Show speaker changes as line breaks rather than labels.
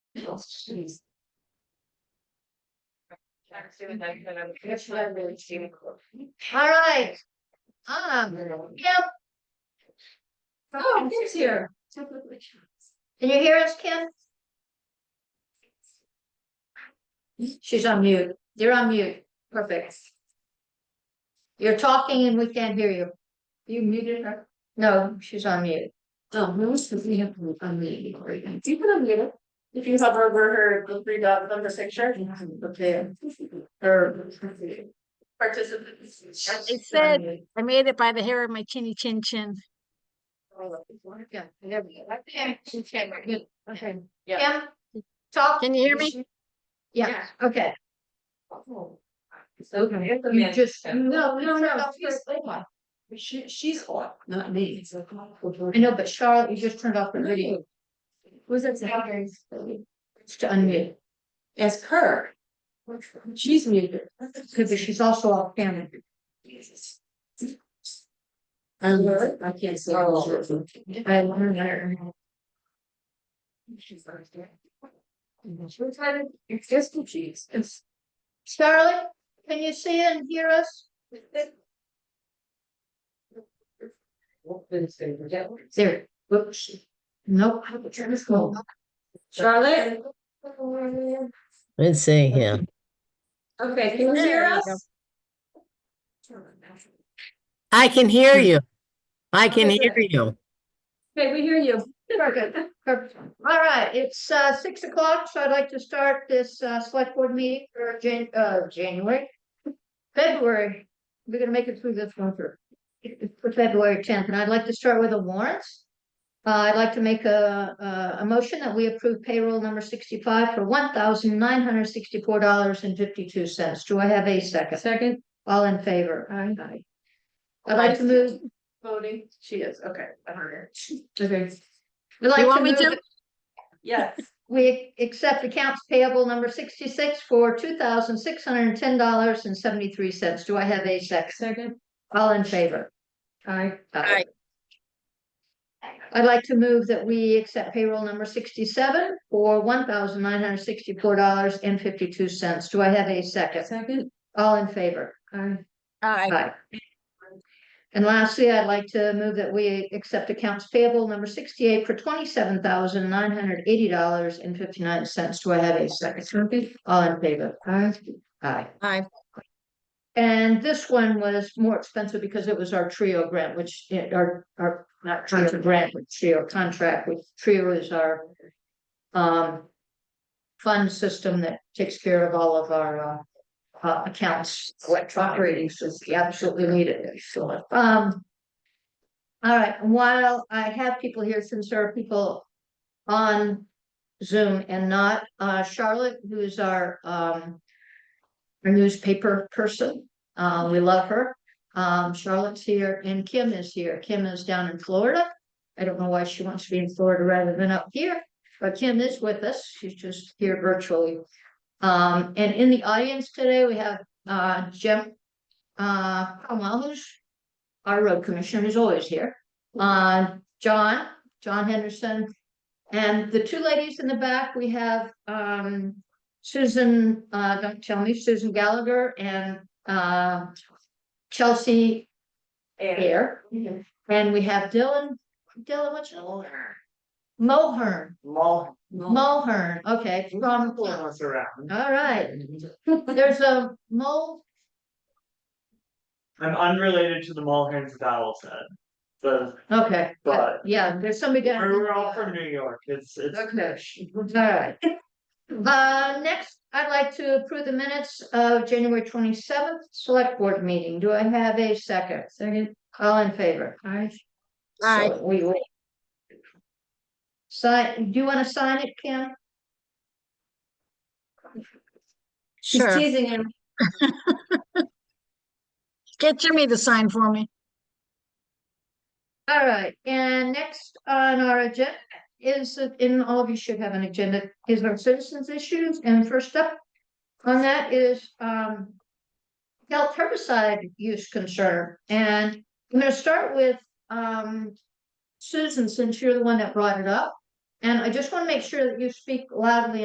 Jeez. That's what I'm really seeing. All right. Um, Kim.
Oh, Kim's here.
Can you hear us, Kim? She's on mute. You're on mute. Perfect. You're talking and we can't hear you.
You muted her.
No, she's on mute.
Oh, who was supposed to have unmuted Cory? Do you put on mute? If you hover over her, the three dot number picture. Okay. Her. Participants.
It said- I made it by the hair of my chinny chin chin.
Yeah, there we go. Okay, she's camera. Good. Okay.
Yeah.
Kim, talk.
Can you hear me?
Yeah, okay.
So.
You just,
No, no, no.
"Oh, She's on.
She, she's on, not me.
I know, but Charlotte, you just turned off the video.
Was it?
It's to unmute.
Ask her. She's muted.
Could be, she's also off camera.
I'm, I can't see.
Oh. I learned her.
She's always there. She was trying to, it's just cheese. It's.
Charlotte, can you see and hear us? There. Whoops. Nope.
Charlotte?
Let's see here.
Okay, can you hear
There you
us?
I can hear you. I can
Okay,
hear
good.
you.
Okay, we hear you.
Perfect. All right, it's uh six o'clock, so I'd like to start this uh select board meeting for Jan- uh January. February, we're gonna make it through this winter. For February tenth, and I'd like to start with the warrants. Uh, I'd like to make a a a motion that we approve payroll number sixty-five for one thousand nine hundred sixty-four dollars and fifty-two cents. Do I have a second?
Second.
All in favor?
Aye.
I'd like to move.
Voting, she is, okay, I heard her. Okay.
I'd like
You want me
move
to?
that
Yes.
We accept accounts payable number sixty-six for two thousand six hundred and ten dollars and seventy-three cents. Do I have a second?
Second.
All in favor?
Aye.
Aye.
I'd like to move that we accept payroll number sixty-seven for one thousand nine hundred sixty-four dollars and fifty-two cents. Do I have a second?
Second.
All in favor?
Aye.
Aye,
Aye. And lastly, I'd like to move that we accept accounts payable number sixty-eight for twenty-seven thousand nine hundred eighty dollars and fifty-nine cents. Do I have a second?
Second.
All in favor? Aye. Aye.
aye,
And this one was more expensive because it was our trio grant, which, eh, our, our, not trio grant, but trio contract, which trio is our. Um. Fund system that takes care of all of our, uh. Uh, accounts, electronic ratings, so we absolutely needed it, so, um. All right, while I have people here, since there are people on Zoom and not, uh, Charlotte, who is our, um our newspaper person. Uh, we love her. Um, Charlotte's here and Kim is here. Kim is down in Florida. I don't know why she wants to be in Florida rather than up here, but Kim is with us. She's just here virtually. Um, and in the audience today, we have, uh, Jim, uh, Cromwell, who's our road commissioner, who's always here. Uh, John, John Henderson. And the two ladies in the back, we have, um, Susan, uh, don't tell me, Susan Gallagher and, uh, Chelsea Air.
Mhm.
And we have Dylan, Dylan, what's your name? Mohern,
Long.
Mohern, okay, from, all
Influence around.
right, there's a Mo,
I'm unrelated to the Mulhans of Allison. But
okay,
But-
yeah, there's somebody down.
we're we're all from New York. It's, it's.
Okay, all right. Uh, next, I'd like to approve the minutes of January twenty-seventh, select board meeting, do I have a second?
Second.
All in favor?
Aye.
aye.
So We will. Sign, do you wanna sign it, Kim?
She's
Sure.
teasing him.
Get Jimmy to sign for me.
All right, and next on our agenda is, in all of you should have an agenda, is our citizens issues, and first up on that is, um, health herbicide use concern, and I'm gonna start with, um, Susan, since you're the one that brought it up, and I just wanna make sure that you speak loudly